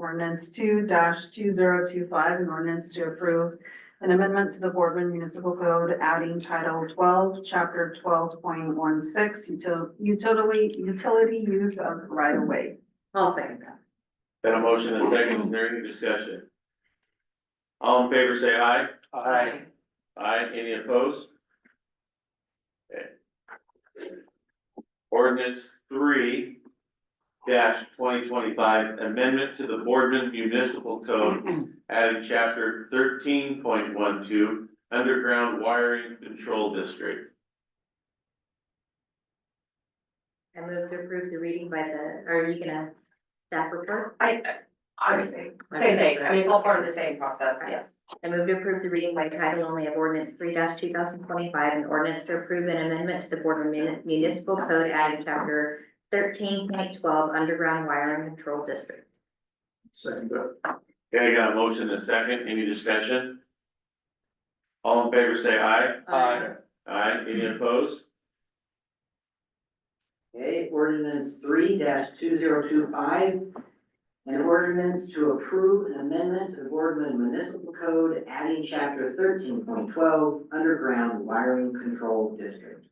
ordinance two two zero two five, an ordinance to approve an amendment to the Boardman Municipal Code adding Title twelve, Chapter twelve point one six, utility, utility use of right of way. I'll second that. Got a motion and a second, is there any discussion? All in favor, say aye. Aye, any opposed? Okay. Ordinance three dash twenty twenty-five, amendment to the Boardman Municipal Code, adding chapter thirteen point one two, underground wiring control district. I move to approve the reading by the, are you gonna, staff report? I, I, same thing, I mean, it's all part of the same process, yes. I move to approve the reading by title only of ordinance three two thousand twenty-five, an ordinance to approve an amendment to the Boardman Mun- Municipal Code adding chapter thirteen point twelve, underground wiring control district. Second. Okay, got a motion and a second, any discussion? All in favor, say aye. Aye. Aye, any opposed? Okay, ordinance three two zero two five. An ordinance to approve an amendment to the Boardman Municipal Code adding chapter thirteen point twelve underground wiring control district.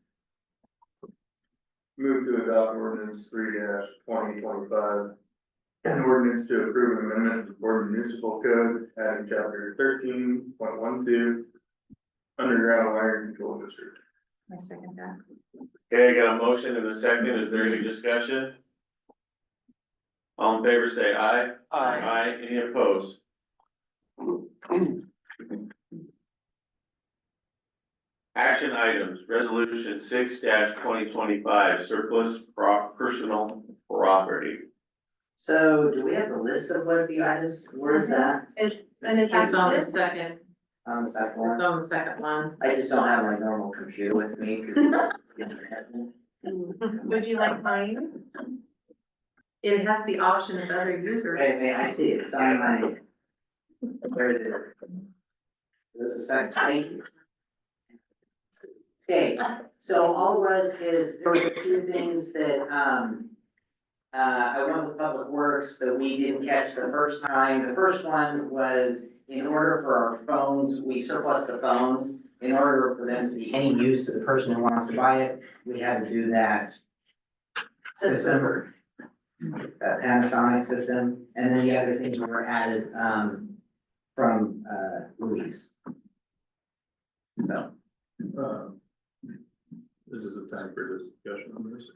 Move to adopt ordinance three twenty twenty-five. An ordinance to approve an amendment to the Board Municipal Code adding chapter thirteen point one two. Underground wire control district. I second that. Okay, I got a motion and a second, is there any discussion? All in favor, say aye. Aye, any opposed? Action items, resolution six twenty twenty-five, surplus pro- personal property. So do we have a list of what the items, where is that? And it's on the second, On the second it's one? on the second line. I just don't have my normal computer with me. 'cause- Would you like mine? It has the option of other users. Wait a minute, I see it, it's on my. Where is it? This is section. Okay, so all it was is, there was a few things that, um. Uh, I went with Public Works that we didn't catch the first time, the first one was in order for our phones, we surplus the phones. In order for them to be any use to the person who wants to buy it, we had to do that. System or uh, Panasonic system, and then the other things were added, um, from, uh, Luis. So, Uh, This is a time for discussion on this.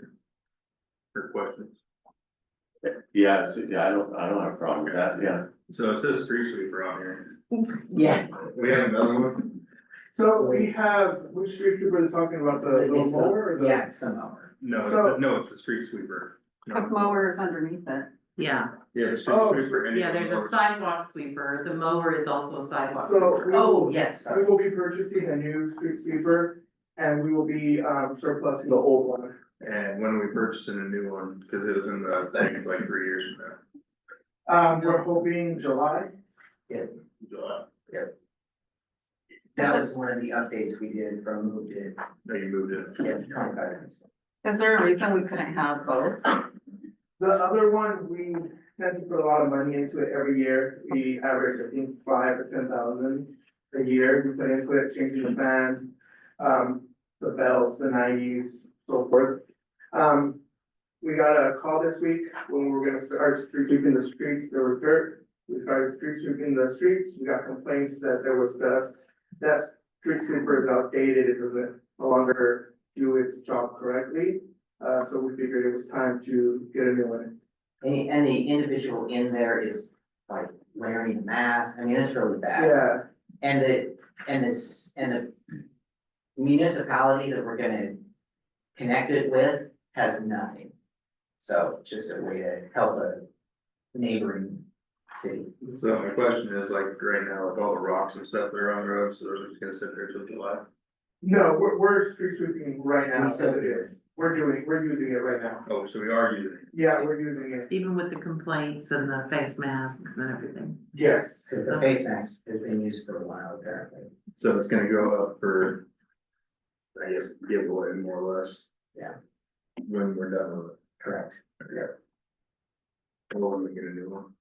or- Or questions. Yeah, it's- yeah, I don't, I don't have a problem with that, yeah. So it says street sweeper on here. yeah, We have another one? So we have, which street trooper is talking about, the little It's the- mower or the? yeah, some are. No, So- no, it's a street sweeper. No. Cause mower is underneath it. Yeah, Yeah, the street Oh, sweeper. and- yeah, there's a sidewalk sweeper, the mower is also a sidewalk So sweeper. we will, Oh, yes. we will be purchasing a new street sweeper and we will be um surplusing the old one. And when are we purchasing a new one? Cause it was in the thing like three years from now. Um, we're hoping July. July. That was one of the updates we did from who did, No, you moved it. yeah, twenty-five minutes. Is there a reason we couldn't have both? The other one, we tend to put a lot of money into it every year. We average, I think, five or ten thousand a year. We put into it, changing the fans, um, the bells, the nineties, so forth. Um, we got a call this week when we were gonna start street sweeping the streets. There was dirt. We started street sweeping the streets. We got complaints that there was dust. That street sweeper is outdated. It doesn't no longer do its job correctly. Uh, so we figured it was time to get a new one. And, the- and the individual in there is like wearing a mask, I mean, it's really bad. Yeah, And the, and this, and the municipality that we're gonna connect it with has nothing. So it's just a way to help a neighboring city. So my question is like right now, like all the rocks and stuff that are on the road, so they're just gonna sit there till July. no, we're, we're street sweeping right now, We so said it is. We're doing, we're using it right now. Oh, so we are using it. Yeah, we're using it, Even with the complaints and the face masks and everything. yes. Cause the face mask has been used for a while apparently. So it's gonna go up for, I guess, giveaway more or less. Yeah. When we're done with Correct. it. Or when we get a new one.